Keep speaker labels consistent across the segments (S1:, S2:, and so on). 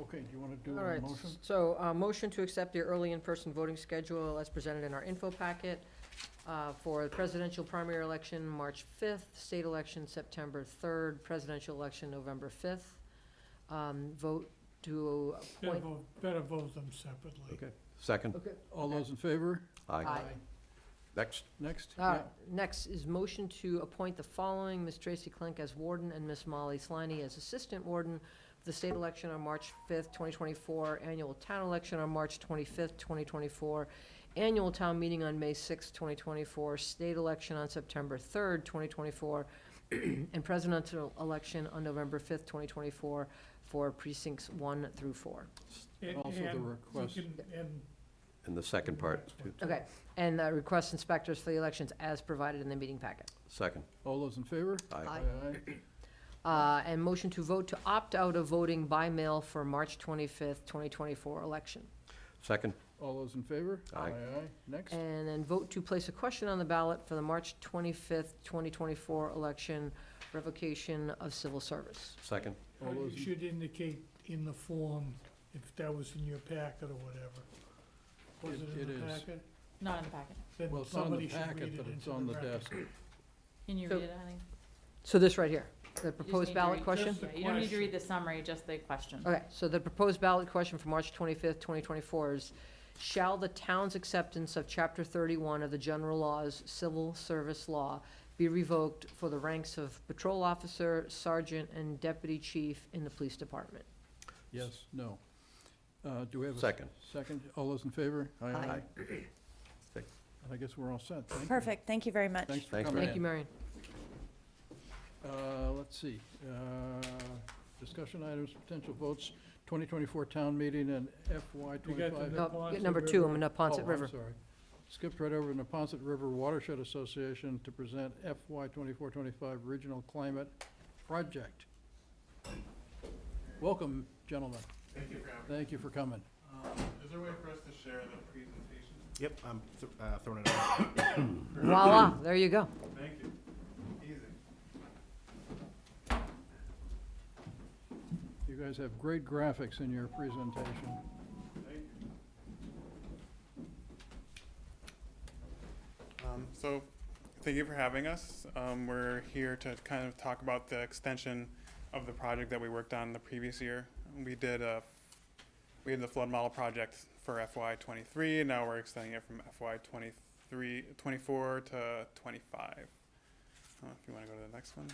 S1: Okay, do you want to do
S2: All
S1: a
S2: right,
S1: motion?
S2: so, uh, motion to accept the early in-person voting schedule as presented in our info packet uh, for the presidential primary election, March 5th, state election, September 3rd, presidential election, November 5th. Um, Vote to
S1: Better
S2: appoint.
S1: vote, better vote them separately.
S3: Okay. Second?
S2: Okay.
S1: All those in favor?
S2: Aye.
S3: Next?
S1: Next?
S2: All right, next is motion to appoint the following, Ms. Tracy Klink as warden and Ms. Molly Sliney as assistant warden for the state election on March 5th, 2024, annual town election on March 25th, 2024, annual town meeting on May 6th, 2024, state election on September 3rd, 2024, and presidential election on November 5th, 2024, for precincts 1 through 4.
S1: Yeah. And-
S3: And-
S1: Also the
S3: and
S1: request.
S3: And the second part, too.
S2: Okay, and uh, request inspectors for the elections as provided in the meeting packet.
S3: Second?
S1: All those in favor?
S2: Aye.
S1: aye.
S2: Uh, And motion to vote to opt out of voting by mail for March 25th, 2024 election.
S3: Second?
S1: All those in favor?
S3: Aye.
S1: aye. Next?
S2: And then vote to place a question on the ballot for the March 25th, 2024 election, revocation of civil service.
S3: Second?
S1: All
S4: You
S1: those in-
S4: should indicate in the form if that was in your packet or whatever. Was
S1: It-
S4: it in
S1: it
S4: the
S1: is.
S4: packet?
S5: Not in the packet.
S1: Well,
S4: Then
S1: it's on the
S4: somebody should
S1: packet,
S4: read
S1: but
S4: it
S1: it's
S4: into
S1: on the
S4: record.
S1: desk.
S5: Can you
S2: So-
S5: read it, honey?
S2: So this right here, the
S5: You just need
S2: proposed
S5: to
S2: ballot
S5: read-
S2: question?
S5: Yeah, You don't need to
S4: Question.
S5: read the summary, just the question.
S2: Okay, so the proposed ballot question for March 25th, 2024 is, shall the town's acceptance of Chapter 31 of the general laws, civil service law, be revoked for the ranks of patrol officer, sergeant, and deputy chief in the police department?
S1: Yes, no. Uh, Do we have a? s-
S3: Second.
S1: Second, all those in favor?
S2: Aye.
S3: Aye.
S1: And I guess we're all set. Thank you.
S6: Perfect, thank you very much.
S1: Thanks for
S3: Thanks,
S1: coming in.
S2: Thank you, Marion.
S1: Uh, Let's see, Uh, discussion items, potential votes, 2024 town meeting and FY
S4: You got the-
S1: '25.
S2: No,
S4: Neponset
S2: Number two, I'm in
S1: Oh,
S2: Napontet
S1: I'm
S2: River.
S1: sorry. Skipped right over to Napontet River Watershed Association to present FY 24-25 Regional Climate Project. Welcome, gentlemen.
S7: Thank you for having
S1: Thank you for coming.
S7: me. Is there a way for us to share the presentation?
S8: Yep, I'm th- uh, throwing it out.
S2: Voila, there you go.
S7: Thank you. Easy.
S1: You guys have great graphics in your presentation.
S7: Thank you. Um, so, thank you for having us. Um, we're here to kind of talk about the extension of the project that we worked on the previous year. We did a, we did the flood model project for FY twenty-three, and now we're extending it from FY 23 24 to twenty-five. Uh, if you wanna go to the next one.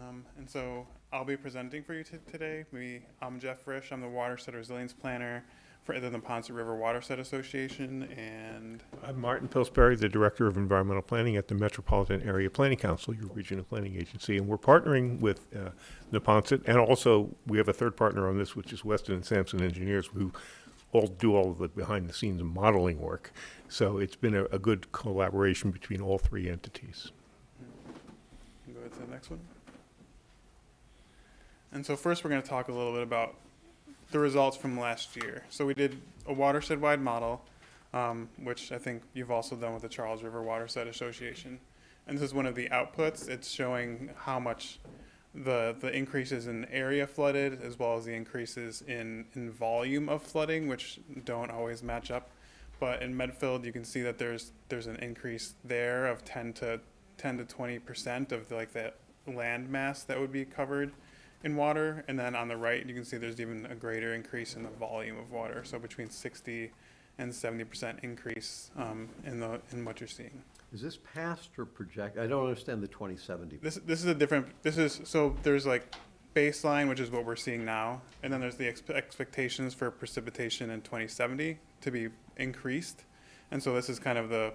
S7: Um, and so I'll be presenting for you t- today. We, I'm Jeff Frisch. I'm the Watershed Resilience Planner for the Ponce River Watershed Association, and
S9: I'm Martin Pillsbury, the Director of Environmental Planning at the Metropolitan Area Planning Council, your regional planning agency, and we're partnering with uh, Neponset, and also, we have a third partner on this, which is Weston and Sampson Engineers, who all do all of the behind-the-scenes modeling work. So it's been a, a good collaboration between all three entities.
S7: Can Go to the next one. And so first, we're going to talk a little bit about the results from last year. So we did a watershed-wide model, um, which I think you've also done with the Charles River Watershed Association. And this is one of the outputs. It's showing how much the the increases in area flooded, as well as the increases in in volume of flooding, which don't always match up. But in Medfield, you can see that there's there's an increase there of 10 to 10 to 20 percent of like the land mass that would be covered in water and then on the right you can see there's even a greater increase in the volume of water so between 60 and 70 percent increase um, in the in what you're seeing
S3: Is this past or project? I don't understand the 2070.
S7: this this is a different this is so there's like baseline which is what we're seeing now and then there's the expe- expectations for precipitation in 2070 to be increased and so this is kind of the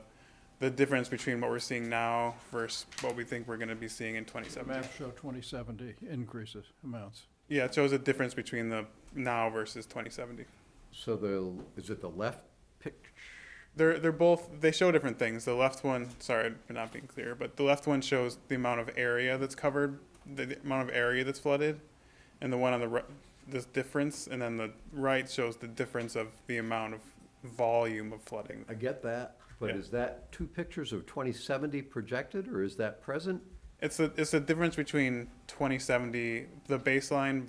S7: the difference between what we're seeing now versus what we think we're going to be seeing in
S1: The
S7: 2070
S1: maps show 2070 increases, amounts.
S7: Yeah, it shows a difference between the now versus 2070.
S3: So the, is it the left picture?
S7: They're they're both they show different things. The left one, sorry for not being clear, but the left one shows the amount of area that's covered, the, the amount of area that's flooded, and the one on the right, this difference, and then the right shows the difference of the amount of volume of flooding.
S3: I get that, but
S7: Yeah.
S3: is that two pictures of 2070 projected, or is that present?
S7: It's the it's the difference between 2070, the baseline